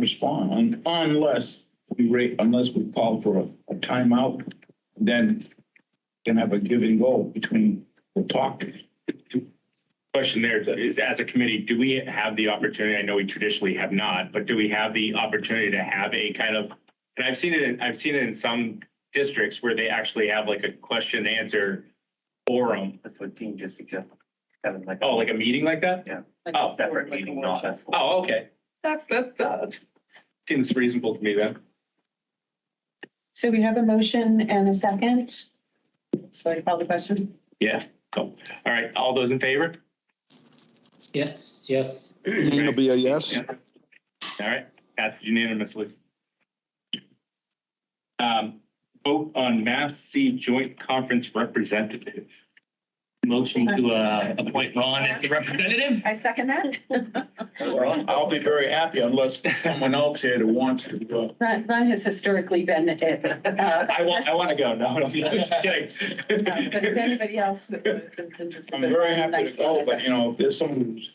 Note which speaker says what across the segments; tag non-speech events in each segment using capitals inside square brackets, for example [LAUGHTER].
Speaker 1: respond un- unless we rate, unless we call for a- a timeout. Then can have a give and go between the talkers.
Speaker 2: Question there is, is as a committee, do we have the opportunity? I know we traditionally have not, but do we have the opportunity to have a kind of, and I've seen it, in- I've seen it in some districts where they actually have like a question and answer forum.
Speaker 3: That's what Dean just suggested. Kind of like,
Speaker 2: Oh, like a meeting like that?
Speaker 4: Like
Speaker 2: Oh,
Speaker 4: a
Speaker 3: separate
Speaker 4: board, like a
Speaker 3: meeting, not
Speaker 4: workshop.
Speaker 3: as.
Speaker 2: Oh, okay. That's, that, that seems reasonable to me then.
Speaker 4: So we have a motion and a second. So I call the question.
Speaker 2: Yeah, cool. All right, all those in favor?
Speaker 5: Yes, yes.
Speaker 6: Dean will be a yes.
Speaker 2: All right, passed unanimously. Um, vote on MAFC Joint Conference Representative. Motion to, uh, appoint Ron as the representative?
Speaker 4: I second [LAUGHS] that.
Speaker 2: Oh.
Speaker 1: I'll be very happy unless someone else here that wants to uh, go.
Speaker 4: Ron Ron has historically been it. uh,
Speaker 2: I want, I want to go. No, I'm just
Speaker 4: But if
Speaker 2: kidding. [LAUGHS]
Speaker 4: anybody else is interested.
Speaker 1: I'm very happy to go, but you know, if there's someone who's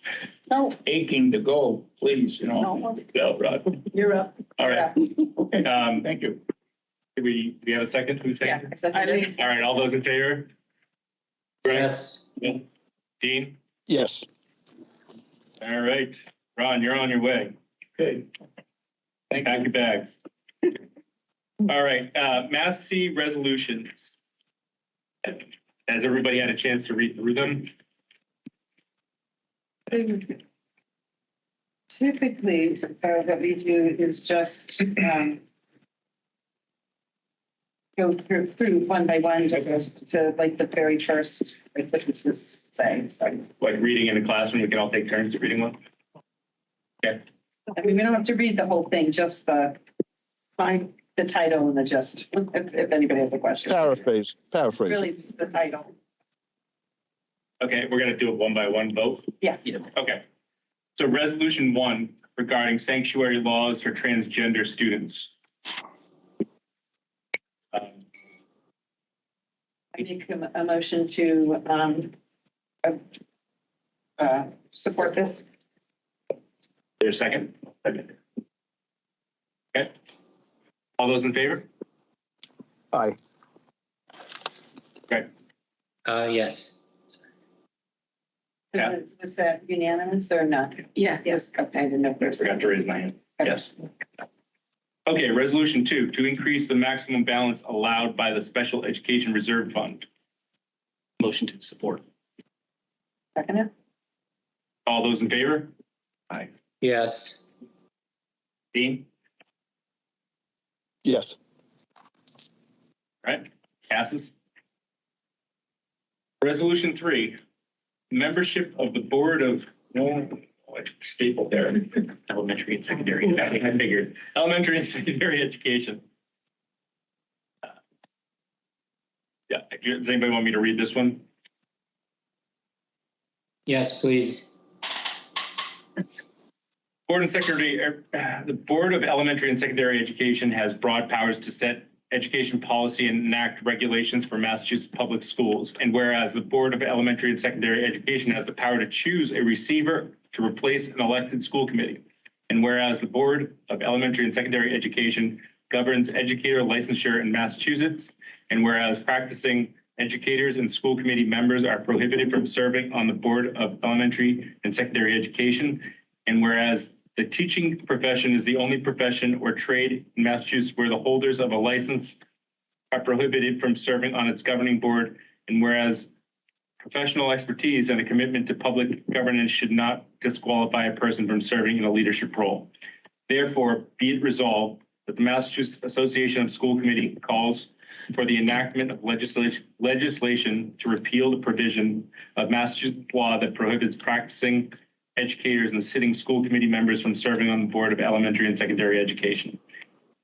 Speaker 4: No,
Speaker 1: aching to go, please, you know.
Speaker 4: no,
Speaker 2: No, Ron.
Speaker 4: you're up.
Speaker 2: All right, um,
Speaker 1: Thank you.
Speaker 2: do we, do we have a second? Who's
Speaker 4: Yeah.
Speaker 2: second?
Speaker 4: I seconded it.
Speaker 2: All right, all those in favor? Greg,
Speaker 5: Yes.
Speaker 2: Dean?
Speaker 6: Yes.
Speaker 2: All right, Ron, you're on your way.
Speaker 1: Okay. Thank
Speaker 2: Pack your bags. All right, uh, Mass C resolutions. Has everybody had a chance to read through them?
Speaker 4: Typically, uh, what we do is just um, go through, through one by one to, to like the very first, like what this was saying, so.
Speaker 2: Like reading in a classroom, we can all take turns reading one?
Speaker 4: I mean, we don't have to read the whole thing, just the, find the title and the gist, if, if anybody has a question.
Speaker 6: Paraphrase,
Speaker 4: Really,
Speaker 6: paraphrase.
Speaker 4: it's just the title,
Speaker 2: Okay, we're gonna do it one by one both.
Speaker 4: yes.
Speaker 2: Okay. So resolution one regarding sanctuary laws for transgender students. Um,
Speaker 4: I make a, a motion to, um, uh, uh, support this.
Speaker 2: There's a second. Okay. All those in favor?
Speaker 6: Aye.
Speaker 5: Uh, yes.
Speaker 2: Yeah.
Speaker 4: Was was that unanimous or not? Yes. Yes, okay, I didn't know if
Speaker 2: I
Speaker 4: there was.
Speaker 2: forgot to raise my hand. Yes. Okay, resolution two, to increase the maximum balance allowed by the Special Education Reserve Fund. Motion to support.
Speaker 4: Second it?
Speaker 2: All those in favor?
Speaker 5: Yes.
Speaker 2: Dean?
Speaker 6: Yes.
Speaker 2: Right, passes. Resolution three, membership of the Board of, no, oh, I stapled there, elementary and secondary, I figured, elementary and [LAUGHS] secondary education. Uh, Yeah, does anybody want me to read this one?
Speaker 5: Yes, please.
Speaker 2: Board and Secretary, uh, [SIGHS] the Board of Elementary and Secondary Education has broad powers to set education policy and enact regulations for Massachusetts public schools. And whereas the Board of Elementary and Secondary Education has the power to choose a receiver to replace an elected school committee. And whereas the Board of Elementary and Secondary Education governs educator licensure in Massachusetts. And whereas practicing educators and school committee members are prohibited from serving on the Board of Elementary and Secondary Education. And whereas the teaching profession is the only profession or trade in Massachusetts where the holders of a license are prohibited from serving on its governing board, and whereas professional expertise and a commitment to public governance should not disqualify a person from serving in a leadership role. Therefore, be it resolved that the Massachusetts Association of School Committee calls for the enactment of legislation, legislation to repeal the provision of Massachusetts law that prohibits practicing educators and sitting school committee members from serving on the Board of Elementary and Secondary Education.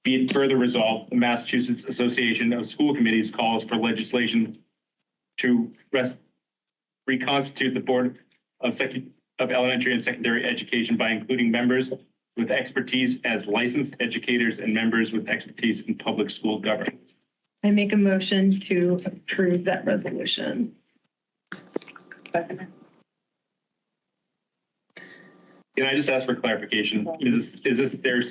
Speaker 2: Be it further resolved, the Massachusetts Association of School Committees calls for legislation to rest, reconstitute the Board of Sec, of Elementary and Secondary Education by including members with expertise as licensed educators and members with expertise in public school governance.
Speaker 7: I make a motion to approve that resolution.
Speaker 4: Second it?
Speaker 2: Can I just ask for clarification? Is this, is this their